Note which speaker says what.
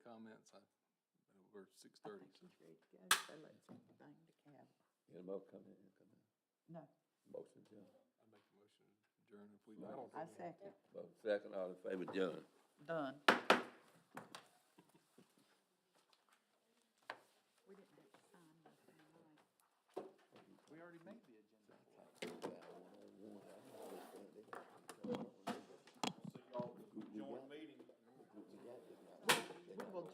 Speaker 1: or six thirty, so.
Speaker 2: Any more comment?
Speaker 3: No.
Speaker 2: Motion adjourned.
Speaker 1: I make a motion, to adjourn if we, I don't.
Speaker 3: I
Speaker 1: think we-
Speaker 3: second.
Speaker 2: Vote second, all in favor, adjourned.
Speaker 3: Done.